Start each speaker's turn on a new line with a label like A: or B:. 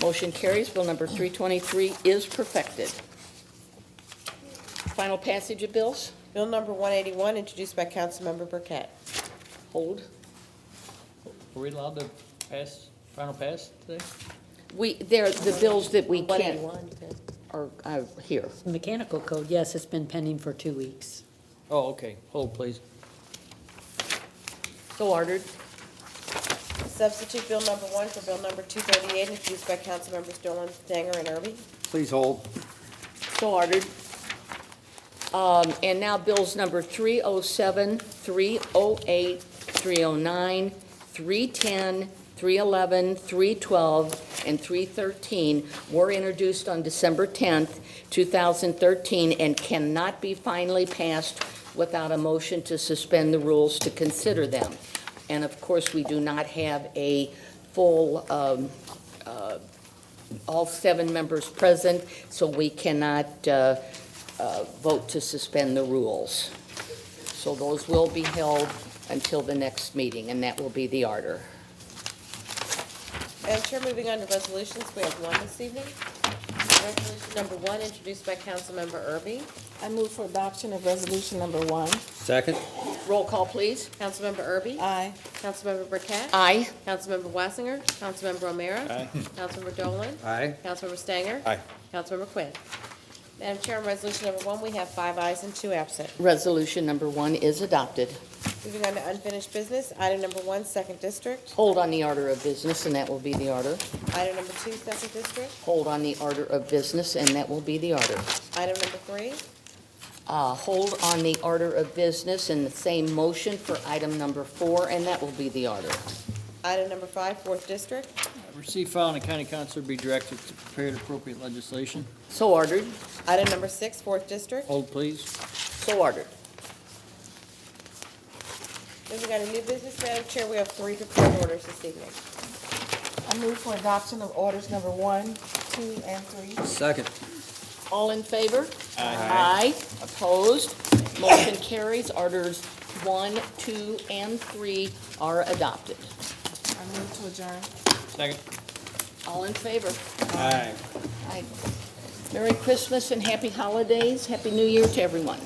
A: Motion carries. Bill number 323 is perfected. Final passage of bills?
B: Bill number 181, introduced by Councilmember Burkett.
A: Hold.
C: Are we allowed to pass, final pass today?
A: We, there, the bills that we can't
D: 181, the
A: are uh, here.
D: Mechanical code, yes, it's been pending for two weeks.
C: Oh, okay, hold, please.
A: So ordered.
B: Substitute Bill number 1 for Bill number 238, introduced by Councilmembers Dolan, Stanger, and Irby.
E: Please hold.
A: So ordered. Um, And now bills number 307, 308, 309, 310, 311, 312, and 313 were introduced on December 10th, 2013, and cannot be finally passed without a motion to suspend the rules to consider them. And of course, we do not have a full um, uh, all seven members present, so we cannot uh, uh, vote to suspend the rules. So those will be held until the next meeting, and that will be the order.
B: Madam Chair, moving on to resolutions, we have one this evening. Resolution number 1, introduced by Councilmember Irby.
F: I move for adoption of resolution number one.
E: Second?
A: Roll call, please.
B: Councilmember Irby.
F: Aye.
B: Councilmember Burkett.
A: Aye.
B: Councilmember Wassinger. Councilmember O'Meara. Councilmember Dolan.
E: Aye.
B: Councilmember Stanger.
E: Aye.
B: Councilmember Quinn. Madam Chair, on resolution number 1, we have five ayes and two absent.
A: Resolution number one is adopted.
B: Moving on to unfinished business, item number 1, Second District.
A: Hold on the order of business, and that will be the order.
B: Item number 2, Second District.
A: Hold on the order of business, and that will be the order.
B: Item number 3.
A: Uh, Hold on the order of business and the same motion for item number four, and that will be the order.
B: Item number five, fourth district.
C: Receive, file, and the county council be directed to prepare appropriate legislation.
A: So ordered.
B: Item number six, fourth district.
C: Hold, please.
A: So ordered.
B: Moving on to new business, Madam Chair, we have three prepared orders this evening.
F: I move for adoption of orders number one, two, and three.
E: Second.
A: All in favor? Aye. Opposed? Motion carries. Orders one, two, and three are adopted.
F: I move to adjourn.
C: Second.
A: All in favor?
E: Aye.
A: Aye. Merry Christmas and happy holidays. Happy New Year to everyone.